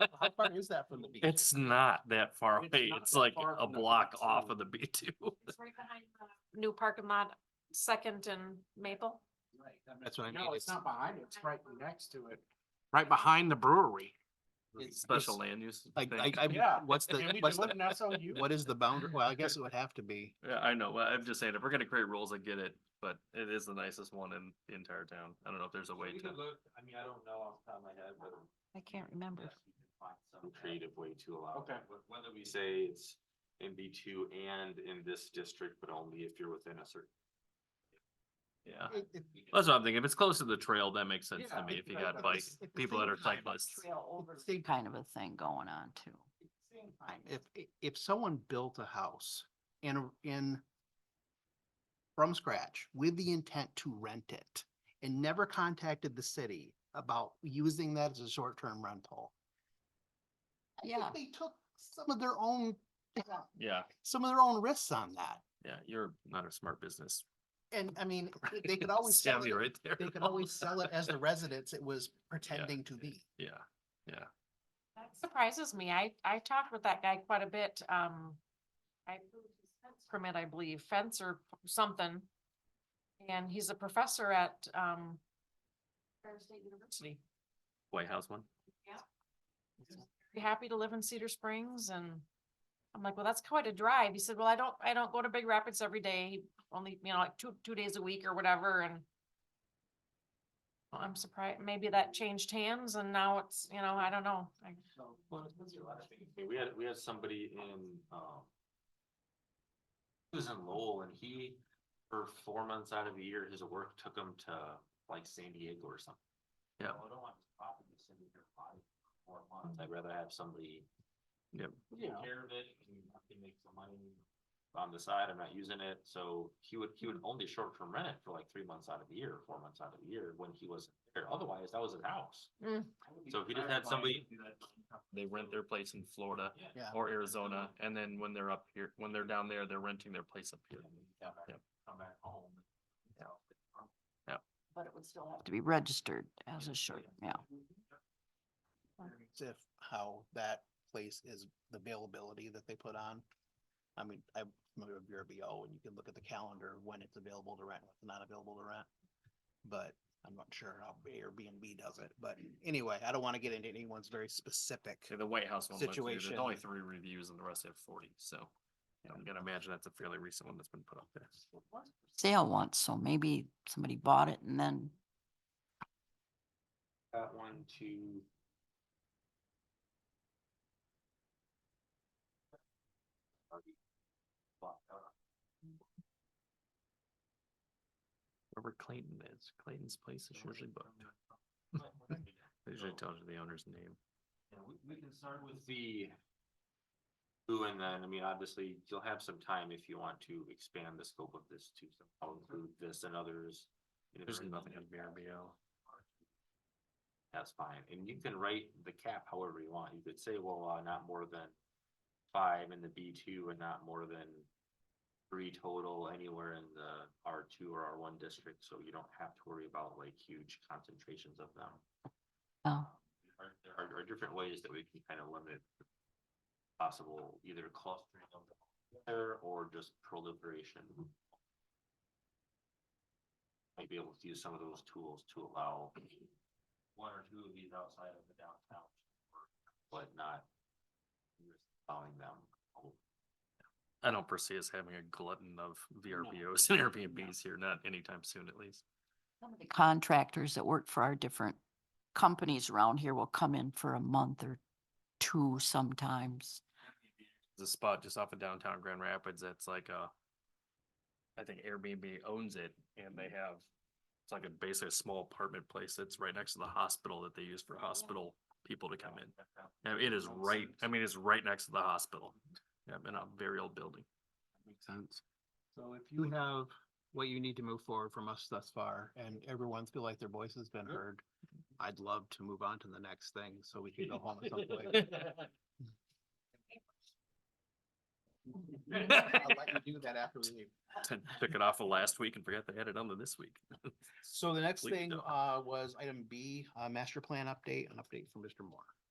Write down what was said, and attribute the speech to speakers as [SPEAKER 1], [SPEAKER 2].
[SPEAKER 1] How far is that from the beach?
[SPEAKER 2] It's not that far
[SPEAKER 1] It's
[SPEAKER 2] away.
[SPEAKER 1] not
[SPEAKER 2] It's
[SPEAKER 1] that
[SPEAKER 2] like
[SPEAKER 1] far
[SPEAKER 2] a
[SPEAKER 1] from the
[SPEAKER 2] block
[SPEAKER 1] park,
[SPEAKER 2] off
[SPEAKER 1] so-
[SPEAKER 2] of the B two.
[SPEAKER 3] It's right behind the new parking lot, Second and Maple.
[SPEAKER 1] Right,
[SPEAKER 2] That's what I mean,
[SPEAKER 1] No,
[SPEAKER 2] it's-
[SPEAKER 1] it's not behind it. It's right next to it. Right behind the brewery. It's-
[SPEAKER 2] Special
[SPEAKER 1] it's-
[SPEAKER 2] land use.
[SPEAKER 4] Like,
[SPEAKER 2] thing.
[SPEAKER 4] like, I,
[SPEAKER 1] Yeah.
[SPEAKER 4] what's the,
[SPEAKER 1] Can we
[SPEAKER 4] what's
[SPEAKER 1] do it
[SPEAKER 4] the,
[SPEAKER 1] in SOU?
[SPEAKER 4] what is the boundary? Well, I guess it would have to be.
[SPEAKER 2] Yeah, I know. well, I'm just saying, if we're gonna create rules, I get it, but it is the nicest one in the entire town. I don't know if there's a way
[SPEAKER 5] We
[SPEAKER 2] to.
[SPEAKER 5] could look, I mean, I don't know off the top of my head, but.
[SPEAKER 3] I can't remember.
[SPEAKER 5] yes, we could find Some creative way to allow.
[SPEAKER 1] Okay.
[SPEAKER 5] it, wh- Whether we say it's in B two and in this district, but only if you're within a certain.
[SPEAKER 2] Yeah,
[SPEAKER 1] It- it-
[SPEAKER 2] that's what I'm thinking. If it's close to the trail, that makes sense to
[SPEAKER 1] Yeah,
[SPEAKER 2] me.
[SPEAKER 1] it-
[SPEAKER 2] If you
[SPEAKER 1] but-
[SPEAKER 2] got
[SPEAKER 1] but
[SPEAKER 2] bike,
[SPEAKER 1] it's- at the
[SPEAKER 2] people that
[SPEAKER 1] same
[SPEAKER 2] are
[SPEAKER 1] time,
[SPEAKER 2] cyclists.
[SPEAKER 3] Trail over.
[SPEAKER 1] it's the
[SPEAKER 6] kind of a thing going on too.
[SPEAKER 1] same time.
[SPEAKER 4] If, i- if someone built a house in, in from scratch with the intent to rent it and never contacted the city about using that as a short-term rental. I think
[SPEAKER 6] Yeah.
[SPEAKER 4] They took some of their own,
[SPEAKER 2] Yeah,
[SPEAKER 4] some of their own risks on that.
[SPEAKER 2] yeah, you're not a smart business.
[SPEAKER 4] And I mean, they could always sell
[SPEAKER 2] Stab
[SPEAKER 4] it
[SPEAKER 2] you right there.
[SPEAKER 4] They could always sell it as the residence it was pretending to be.
[SPEAKER 2] Yeah,
[SPEAKER 3] That surprises me. I, I talked with that guy quite a bit. Um, I approved his fence permit, I believe, fence or something. And he's a professor at, um, Fair State University.
[SPEAKER 2] White House one.
[SPEAKER 3] Be happy to live in Cedar Springs and I'm like, well, that's quite a drive. He said, well, I don't, I don't go to Big Rapids every day, only, you know, like two, two days a week or whatever and I'm surprised, maybe that changed hands and now it's, you know, I don't know. I-
[SPEAKER 5] I mean, We had, we had somebody in, um. He was in Lowell and he, for four months out of the year, his work took him to like San Diego or something.
[SPEAKER 2] Yeah.
[SPEAKER 5] "Well, I don't want this property to sit in here five, four months. I'd rather have somebody.
[SPEAKER 2] Yep.
[SPEAKER 5] Take care of it and I can make some money on the side. I'm not using it. So he would, he would only short term rent it for like three months out of the year, four months out of the year when he wasn't there. Otherwise, that was his house.
[SPEAKER 3] Mm.
[SPEAKER 5] So if he just had somebody.
[SPEAKER 2] They rent their place in Florida
[SPEAKER 5] Yeah.
[SPEAKER 4] Yeah.
[SPEAKER 2] or Arizona, and then when they're up here, when they're down there, they're renting their place up here. Yep.
[SPEAKER 5] Come back home.
[SPEAKER 3] But it would still have
[SPEAKER 6] To be registered as a short, yeah.
[SPEAKER 4] It's If how that place is, the availability that they put on. I mean, I'm familiar with VRBO and you can look at the calendar when it's available to rent, when it's not available to rent. But I'm not sure how Airbnb does it, but anyway, I don't want to get into anyone's very specific.
[SPEAKER 2] Okay, the White House one went through, there's only
[SPEAKER 4] Situation.
[SPEAKER 2] three reviews and the rest have forty, so. I'm gonna imagine that's a fairly recent one that's been put up there.
[SPEAKER 6] Sale once, so maybe somebody bought it and then
[SPEAKER 5] Got one, two. Already blocked out.
[SPEAKER 2] Wherever Clayton is, Clayton's place is usually booked. It Usually
[SPEAKER 5] So-
[SPEAKER 2] tells you the owner's name.
[SPEAKER 5] Yeah, we, we can start with the. Who and then, I mean, obviously, you'll have some time if you want to expand the scope of this to somehow include this and others. you know,
[SPEAKER 2] There's
[SPEAKER 5] there is
[SPEAKER 2] nothing
[SPEAKER 5] nothing
[SPEAKER 2] in VRBO.
[SPEAKER 5] That's fine, and you can write the cap however you want, you could say, well, uh, not more than five in the B two and not more than. Three total anywhere in the R two or R one district, so you don't have to worry about like huge concentrations of them.
[SPEAKER 6] Oh.
[SPEAKER 5] Are, there are, are different ways that we can kind of limit possible either clustering of them together or just proliferation. Might be able to use some of those tools to allow one or two of these outside of the downtown, but not allowing them.
[SPEAKER 2] I don't foresee us having a glutton of VRBOs and Airbnbs here, not anytime soon at least.
[SPEAKER 6] some of the contractors that work for our different companies around here will come in for a month or two sometimes.
[SPEAKER 2] There's a spot just off of downtown Grand Rapids that's like a. I think Airbnb owns it and they have, it's like a basically a small apartment place that's right next to the hospital that they use for hospital people to come in. Yeah, it is right, I mean, it's right next to the hospital. Yeah, in a very old building.
[SPEAKER 4] Makes sense. So if you have what you need to move forward from us thus far and everyone feel like their voice has been heard, I'd love to move on to the next thing so we can go home at some point. I'll let you do that after we leave.
[SPEAKER 2] To Took it off of last week and forgot to add it on to this week.
[SPEAKER 4] So the next
[SPEAKER 2] Please
[SPEAKER 4] thing,
[SPEAKER 2] don't.
[SPEAKER 4] uh, was item B, uh, master plan update, an update from Mr. Moore.